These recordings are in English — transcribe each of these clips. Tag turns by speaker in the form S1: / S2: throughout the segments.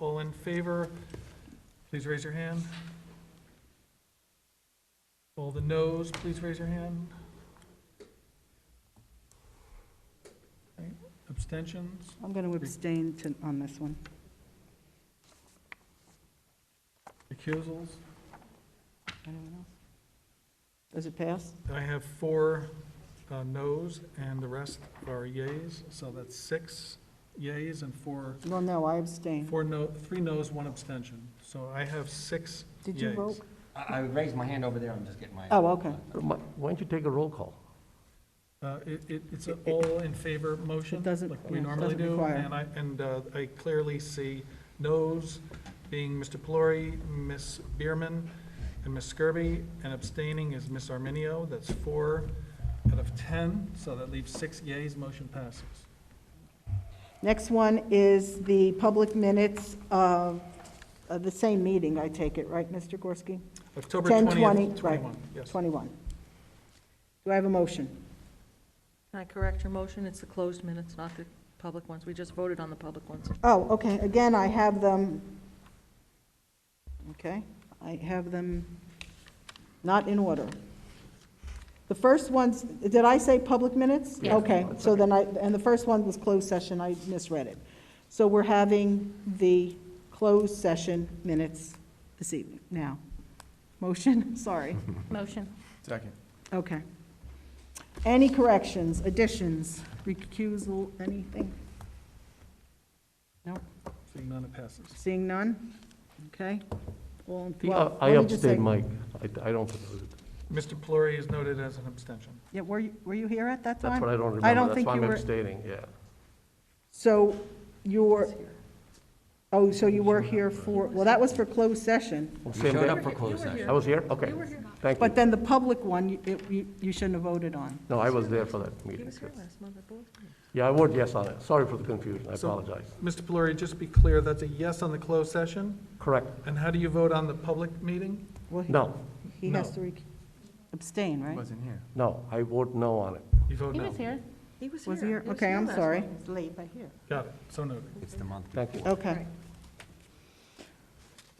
S1: All in favor, please raise your hand. All the noes, please raise your hand. Okay, Abstentions?
S2: I'm going to abstain to- on this one.
S1: Recusals?
S2: Anyone else? Does it pass?
S1: I have four uh, noes, and the rest are yays, so that's six yays and four,
S2: Well, no, I abstain.
S1: four no, three noes, one abstention. So I have six
S2: Did you
S1: yays.
S2: vote?
S3: I I raised my hand over there, I'm just getting my.
S2: Oh, okay.
S4: Why why don't you take a roll call?
S1: Uh, It, it- it's an all in favor motion,
S2: It doesn't-
S1: like we
S2: yeah,
S1: normally
S2: doesn't
S1: do,
S2: require.
S1: and I, and uh, I clearly see noes being Mr. Pelori, Ms. Bierman, and Ms. Skirby, and abstaining is Ms. Arminio, that's four out of 10, so that leaves six yays, motion passes.
S2: Next one is the public minutes of of the same meeting, I take it, right, Mr. Gorski?
S1: October
S2: 10,
S1: 20th, 21,
S2: 20, right,
S1: yes.
S2: 21. Do I have a motion?
S5: Can I correct your motion? It's the closed minutes, not the public ones. We just voted on the public ones.
S2: Oh, okay, again, I have them, okay, I have them not in order. The first ones, did I say public minutes?
S4: Yeah.
S2: Okay, so then I, and the first one was closed session, I misread it. So we're having the closed session minutes this evening, now. Motion, sorry,
S6: Motion.
S3: Second.
S2: okay. Any corrections, additions, recusal, anything? No?
S1: Seeing none, it passes.
S2: Seeing none? Okay. All in
S4: The- uh,
S2: favor?
S4: I abstain, Mike. I I don't,
S1: Mr. Pelori is noted as an abstention.
S2: Yeah, were you, were you here at that time?
S4: that's what I don't
S2: I don't
S4: remember. That's
S2: think
S4: why
S2: you
S4: I'm
S2: were-
S4: abstaining, yeah.
S2: So you were, oh, so you were here for, well, that was for closed session,
S4: Well,
S3: You
S4: Same
S3: showed
S4: day.
S3: up for closed session.
S4: I was here? Okay. Thank
S2: but
S4: you.
S2: then the public one, you- it- you, you shouldn't have voted on.
S4: No, I was there for that
S5: He
S4: meeting.
S5: was here last month, I believe.
S4: Yeah, I vote yes on it. Sorry for the confusion. I
S1: So-
S4: apologize.
S1: Mr. Pelori, just to be clear, that's a yes on the closed session,
S4: Correct.
S1: and how do you vote on the public meeting?
S2: Well, he-
S4: No,
S2: He has
S1: No.
S2: to rec- abstain, right?
S3: Wasn't here.
S4: no, I vote no on it.
S1: You vote
S6: He
S1: no.
S6: was here.
S5: He was here.
S2: Was he here?
S5: He was
S2: Okay, I'm
S5: last
S2: sorry.
S5: month.
S2: late, but here.
S1: Got it, so noted.
S3: It's the month.
S4: Thank you.
S2: Okay.
S5: Right.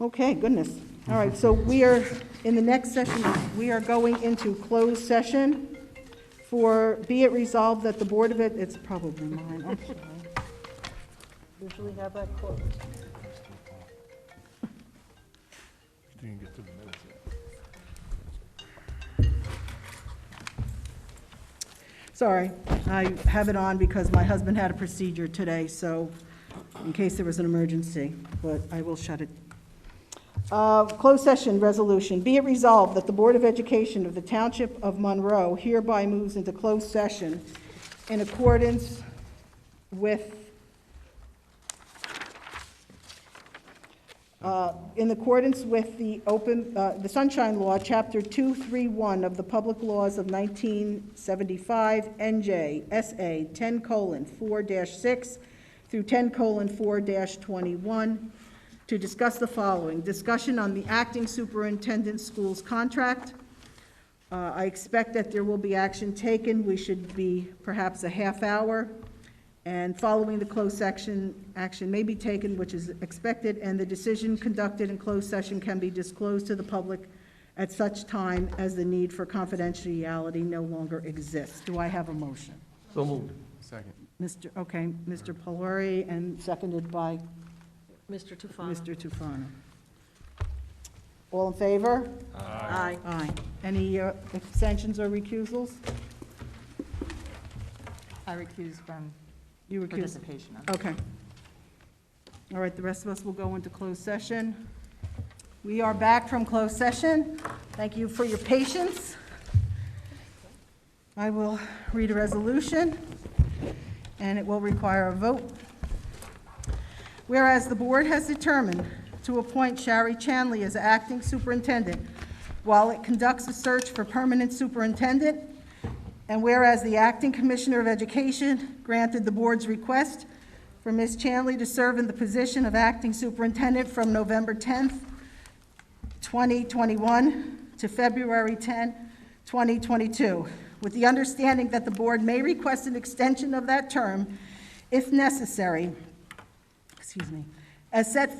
S2: Okay, goodness. All right, so we are, in the next session, we are going into closed session for, be it resolved that the Board of Ed, it's probably mine, I'm sorry. Usually have that closed. Sorry, I have it on because my husband had a procedure today, so in case there was an emergency, but I will shut it. Uh, Closed session resolution. Be it resolved that the Board of Education of the Township of Monroe hereby moves into closed session in accordance with Uh, in accordance with the open, uh, the Sunshine Law, Chapter 231 of the Public Laws of 1975, NJ, SA 10:4-6 through 10:4-21, to discuss the following: discussion on the acting superintendent schools contract. Uh, I expect that there will be action taken. We should be perhaps a half hour. And following the closed section, action may be taken, which is expected, and the decision conducted in closed session can be disclosed to the public at such time as the need for confidentiality no longer exists. Do I have a motion?
S4: So moved.
S3: Second.
S2: Mr., okay, Mr. Pelori, and seconded by
S5: Mr. Tufano.
S2: Mr. Tufano. All in favor?
S5: Aye.
S2: Aye. Any uh, abstentions or recusals?
S6: I recuse from
S2: You recuse.
S6: participation on
S2: Okay. All right, the rest of us will go into closed session. We are back from closed session. Thank you for your patience. I will read a resolution, and it will require a vote. Whereas the board has determined to appoint Shari Chanley as acting superintendent while it conducts a search for permanent superintendent, and whereas the acting commissioner of education granted the board's request for Ms. Chanley to serve in the position of acting superintendent from November 10th, 2021 to February 10, 2022, with the understanding that the board may request an extension of that term if necessary, excuse me, as set